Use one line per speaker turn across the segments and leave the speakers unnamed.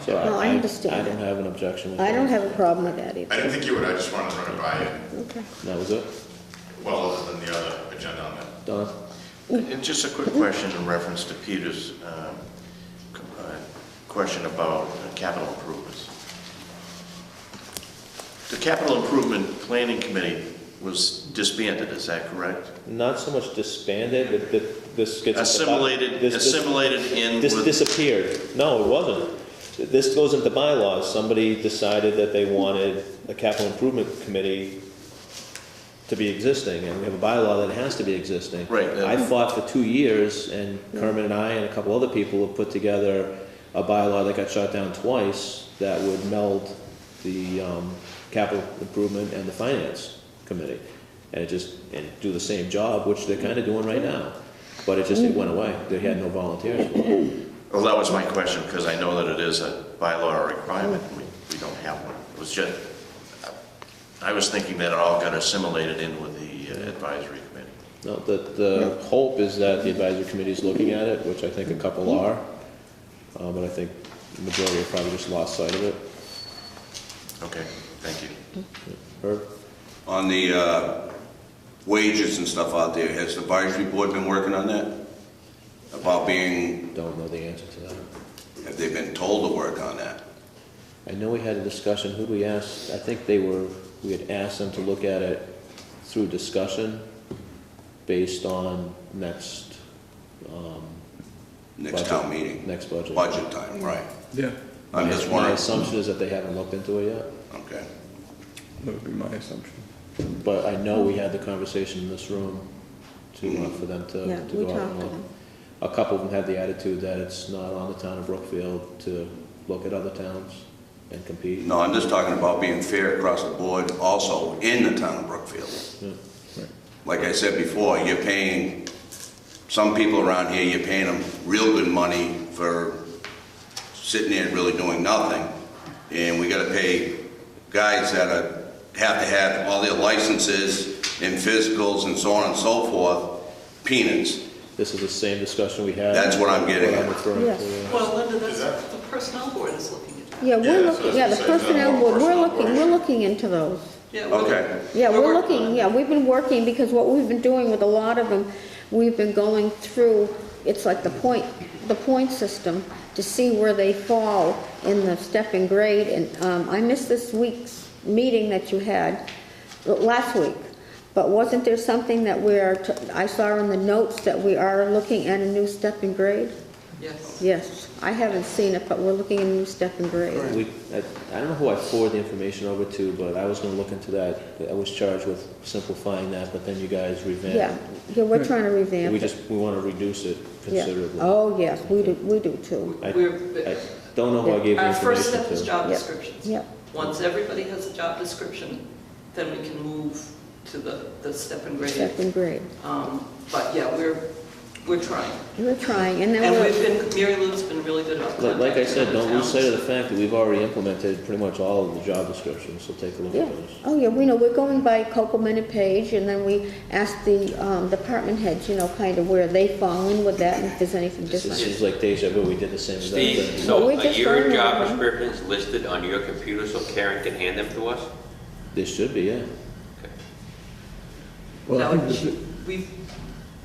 So
No, I understand
I don't
that.
have an objection with that.
I don't have a problem with that
I
either.
didn't think you would, I just wanted to run it by you,
Okay.
That was it?
well, other than the other agenda on that.
Done?
And just a quick question in reference to Peter's um, c- uh, question about uh, capital improvements. The capital improvement planning committee was disbanded, is that correct?
Not so much disbanded, but th- this gets. at the bo-
Assimilated,
this- this-
assimilated in
This
with,
disappeared. No, it wasn't. This goes into bylaws. Somebody decided that they wanted a capital improvement committee to be existing, and we have a bylaw that it has to be existing.
Right, yeah.
I fought for two years, and Kermit and I and a couple other people have put together a bylaw that got shot down twice that would meld the, um, capital improvement and the finance committee. And it just, and do the same job, which they're kinda doing right now. But it just, it went away. They had no volunteers.
well, that was my question, because I know that it is a bylaw requirement, we, we don't have one. It was just, I was thinking that it all got assimilated in with the uh, advisory committee.
No, the, the hope is that the advisory committee is looking at it, which I think a couple are. Uh, but I think the majority have probably just lost sight of it.
Okay, thank you.
Herb?
On the uh, wages and stuff out there, has the advisory board been working on that? About being,
Don't know the answer to that.
have they been told to work on that?
I know we had a discussion, who'd we ask? I think they were, we had asked them to look at it through discussion based on next, um,
Next
Budget.
town meeting,
next budget.
budget time, right?
Yeah,
I'm just
My
wondering,
assumption is that they haven't looked into it yet.
okay.
that would be my assumption.
But I know we had the conversation in this room to, uh, for them to,
Yeah,
to
we
go out
talked
and
to
look.
them.
A couple of them had the attitude that it's not on the town of Brookfield to look at other towns and compete.
No, I'm just talking about being fair across the board also in the town of Brookfield. Like I said before, you're paying, some people around here, you're paying them real good money for sitting there and really doing nothing. And we gotta pay guys that are, have to have all their licenses and physicals and so on and so forth, peanuts.
This is the same discussion we had.
That's what I'm getting at.
referring to,
Yes.
yeah.
Well, Linda, that's,
Is that-
the personnel board is looking at that.
Yeah,
Yeah, we're
so
looking,
it's
yeah,
the
the
same thing,
personnel
all
board, we're
personnel
looking, we're
boards.
looking into those.
Yeah, we're-
Okay,
Yeah, we're
working on
looking,
it.
yeah, we've been working, because what we've been doing with a lot of them, we've been going through, it's like the point, the point system, to see where they fall in the step and grade, and, um, I missed this week's meeting that you had, l- last week, but wasn't there something that we are, t- I saw in the notes that we are looking at a new step and grade?
Yes.
Yes, I haven't seen it, but we're looking at a new step and grade.
We, I, I don't know who I forwarded the information over to, but I was gonna look into that. I was charged with simplifying that, but then you guys
Yeah,
revamped.
yeah, we're trying to revamp it.
Hmm. We just, we wanna reduce it
Yeah.
considerably.
Oh, yes, we do, we do too.
I- I
We're,
don't know who I gave the information to.
our first step is job
Yeah,
descriptions.
yeah.
Once everybody has a job description, then we can move to the, the step and grade.
Second grade.
Um, But yeah, we're, we're trying.
We're trying, and then
And we've
we're,
been, Mary Lou's been really good about
Like
contacting
like I said,
other
don't lose sight of the
towns.
fact that we've already implemented pretty much all of the job descriptions, so take a look
yeah,
at those.
oh, yeah, we know, we're going by Copeland and Page, and then we ask the um, department heads, you know, kind of where they fall in with that, and if there's anything
This is-
different.
this is like deja vu, we did the same exact
Steve,
thing
so
Well, we
uh,
just
your
learned
job
that, huh?
description is listed on your computer so Karen can hand them to us?
This should be, yeah.
Well, I
Now,
think this is-
We've,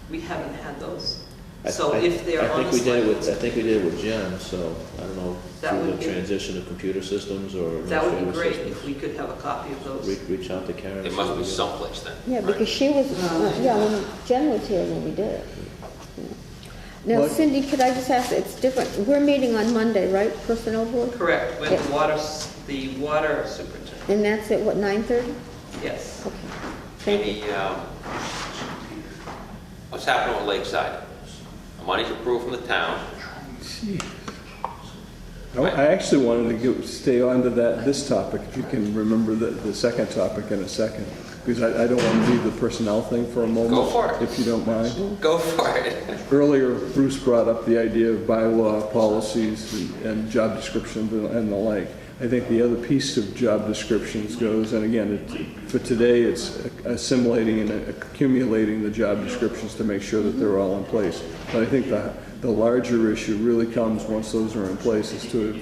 we haven't had those.
I-
So
I-
if they're on
I think
the
we did it with, I
select-
think we did it with Jen, so I don't know,
That
through
would
the
be-
transition of computer systems or
That would be
administrative
great if
systems.
we could have a copy of those.
Re- Reach out to Karen.
It
see
must
what
be
we got.
someplace then.
Yeah,
right?
because she was, uh, yeah, when Jen was here when we did it. Now
What-
Cindy, could I just ask, it's different, we're meeting on Monday, right, personnel board?
Correct, with
Yeah.
the water, s- the water superintendent,
And that's at, what, 9:30?
yes.
Okay, thank you.
Any, um, what's happening with Lakeside? The Money's approved from the town.
I I actually wanted to go, stay on to that, this topic, if you can remember the, the second topic in a second, because I, I don't want to leave the personnel thing for a moment.
for it.
If you don't
Oh.
mind.
Go for it.
Earlier, Bruce brought up the idea of bylaw policies and- and job descriptions and- and the like. I think the other piece of job descriptions goes, and again, it- for today, it's assimilating and accumulating the job descriptions to make sure that they're all in place. But I think the, the larger issue really comes once those are in place is to